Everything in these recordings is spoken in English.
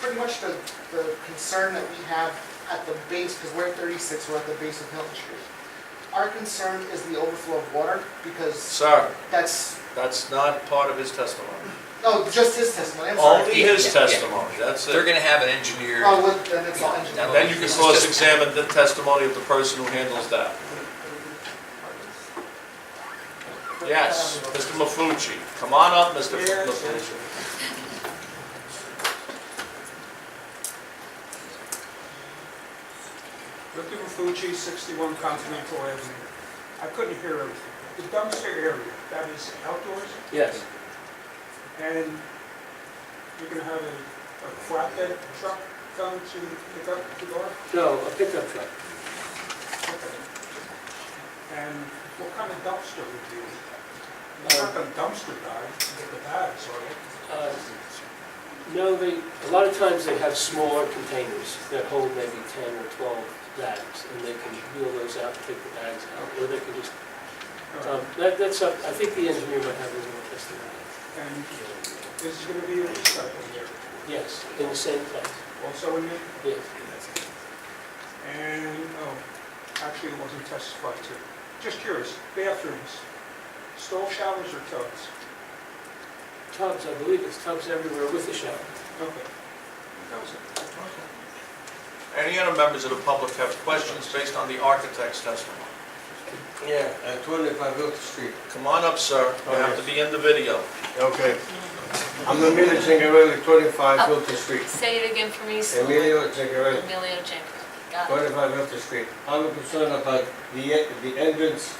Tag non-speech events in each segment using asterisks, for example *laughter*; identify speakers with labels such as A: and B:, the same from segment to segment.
A: pretty much the, the concern that we have at the base, because we're at thirty-six, we're at the base of Hilton Street. Our concern is the overflow of water, because
B: Sir,
A: that's,
B: that's not part of his testimony.
A: no, just his testimony, I'm sorry.
B: Only his
C: Yeah, yeah.
B: testimony, that's
C: They're
B: it.
C: gonna have an engineer.
A: Oh, well, then it's all engineered.
B: And then you can cross-examine the testimony of the person who handles that.
A: uh,
B: Yes, Mr. Mafucci, come on up, Mr. Mafucci.
D: Victor Mafucci, 61 Continental Avenue. I couldn't hear everything. The dumpster area, that is outdoors,
B: Yes.
D: and you're going to have a a flatbed truck come to pick up the garbage?
E: No, a pickup truck.
D: Okay. And what kind of dumpster would you use? You're not going to dumpster dive to get the bags, are you?
E: Uh, No, they, a lot of times they have smaller containers that hold maybe 10 or 12 bags, and they can wheel those out and take the bags out, or they can just, um, that- that's up, I think the engineer might have his own testimony.
D: And is going to be a recycling area
E: Yes, in the same place,
D: also in there?
E: yes.
D: And, oh, actually, it wasn't testified to. Just curious, bathrooms, stall showers or tubs?
E: Tubs, I believe it's tubs everywhere with the shower.
D: Okay. That was it.
B: Any other members of the public have questions based on the architect's testimony?
F: Yeah, at 25 Wilton Street.
B: Come on up, sir, you have to be in the video.
F: Okay. I'm Emilio Chingarelli, 25
G: Up.
F: Wilton Street.
G: Say it again for me. slowly.
F: Emilio Chingarelli,
G: Emilio Jankarelli. Got it.
F: 25 Wilton Street. I'm concerned about the e- the entrance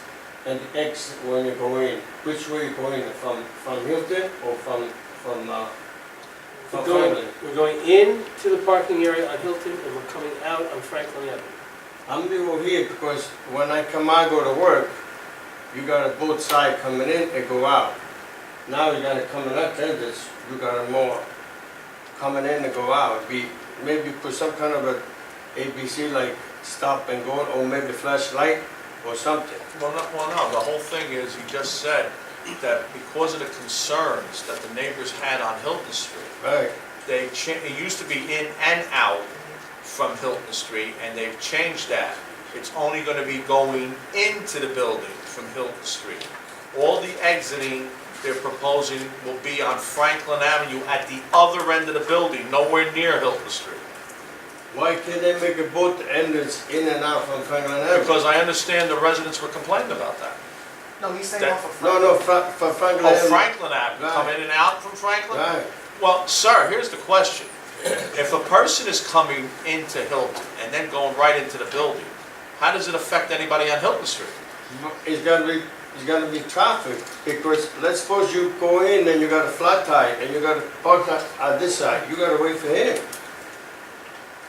F: and the exit when you go in. Which way you go in, from from Hilton or from from uh,
E: We're
F: from
E: going,
F: Franklin?
E: we're going in to the parking area on Hilton, and we're coming out on Franklin Avenue.
F: I'm new over here because when I come out go to work, you got a both side coming in and go out. Now you gotta come in that entrance, you got a more coming in and go out. Be maybe put some kind of a ABC like stop and go or maybe flashlight or something.
B: Well, no, well, no, the whole thing is, you just said that because of the concerns that the neighbors had on Hilton Street,
F: Right.
B: they cha, it used to be in and out from Hilton Street, and they've changed that. It's only gonna be going into the building from Hilton Street. All the exiting they're proposing will be on Franklin Avenue at the other end of the building, nowhere near Hilton Street.
F: Why can't they make a both entrance in and out from Franklin Avenue?
B: Because I understand the residents were complaining about that.
A: No, he's saying
B: That-
A: off of.
F: No, no, Fra- from Franklin
B: Oh,
F: Avenue.
B: Franklin Avenue, come in and out from Franklin?
F: Right.
B: Well, sir, here's the question. If a person is coming into Hilton and then going right into the building, how does it affect anybody on Hilton Street?
F: It's gotta be, it's gotta be traffic, because let's suppose you go in and you got a flat tire, and you got to park on, on this side, you gotta wait for him.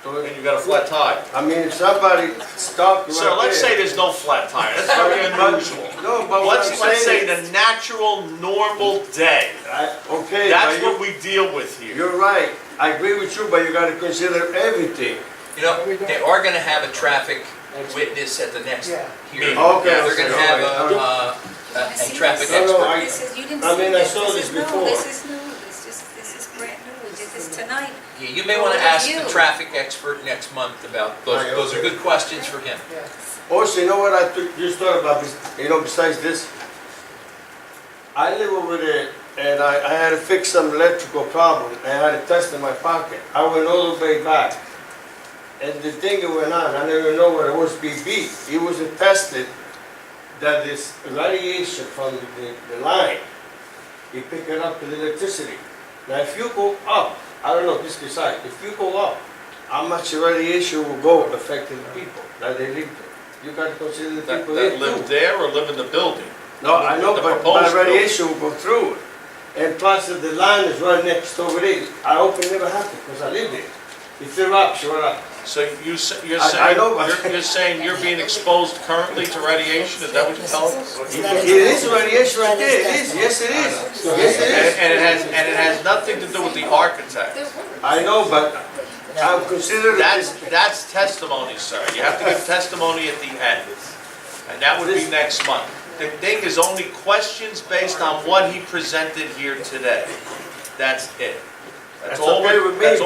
F: So,
B: And you got a flat tire.
F: I mean, if somebody stopped right there.
B: Sir, let's say there's no flat tire, that's
F: *laughs*
B: very unusual.
F: No, but what
B: Let's,
F: I'm
B: let's say
F: saying is.
B: the natural, normal day,
F: I- Okay,
B: that's what
F: but
B: we deal with
F: you,
B: here.
F: you're right, I agree with you, but you gotta consider everything.
C: You know, they are gonna have a traffic witness at the next
A: Yeah.
C: hearing.
F: Okay,
C: They're gonna have a,
F: all right,
C: uh, a,
H: I
C: a
H: see
C: traffic
H: this.
F: No,
C: expert.
F: no, I-
H: This is, you didn't
F: I
H: see
F: mean, I
H: this,
F: saw
H: this
F: this
H: is new,
F: before.
H: this is new, this is, this is brand new, this is tonight.
C: Yeah, you may wanna
H: Well,
C: ask
H: you.
C: the traffic expert next month about, those,
F: Right,
C: those are
F: okay.
C: good questions for him.
A: Yeah.
F: Also, you know what I took, just thought about this, you know, besides this? I live over there and I, I had to fix some electrical problem and I had a test in my pocket. I went all the way back. And the thing that went on, I never know what it was BB. It was a tested that this radiation from the, the line, it picking up the electricity. Now if you go up, I don't know, this decide, if you go up, how much radiation will go affecting the people that they live there? You gotta consider the
B: That,
F: people there
B: that live
F: too.
B: there or live in the building.
F: No, I know,
B: The
F: but
B: proposed
F: my radiation will go through it. And plus, if the line is right next over there, I hope it never happens, because I live there. If they're up, sure up.
B: So you, s- you're
F: I- I
B: saying,
F: know, but-
B: you're- you're saying you're being exposed currently to radiation, is that what you're telling us?
F: It it is radiation right there, it is, yes it is, yes
B: And
F: it
B: and it has, and it has nothing to do with the architect.
F: is. I know, but I'm considering
B: That's,
F: this,
B: that's testimony, sir. You have to give testimony at the end. And that would be next month. The thing is only questions based on what he presented here today. That's it. That's
F: That's
B: all
F: okay
B: we're-
F: with me,
B: that's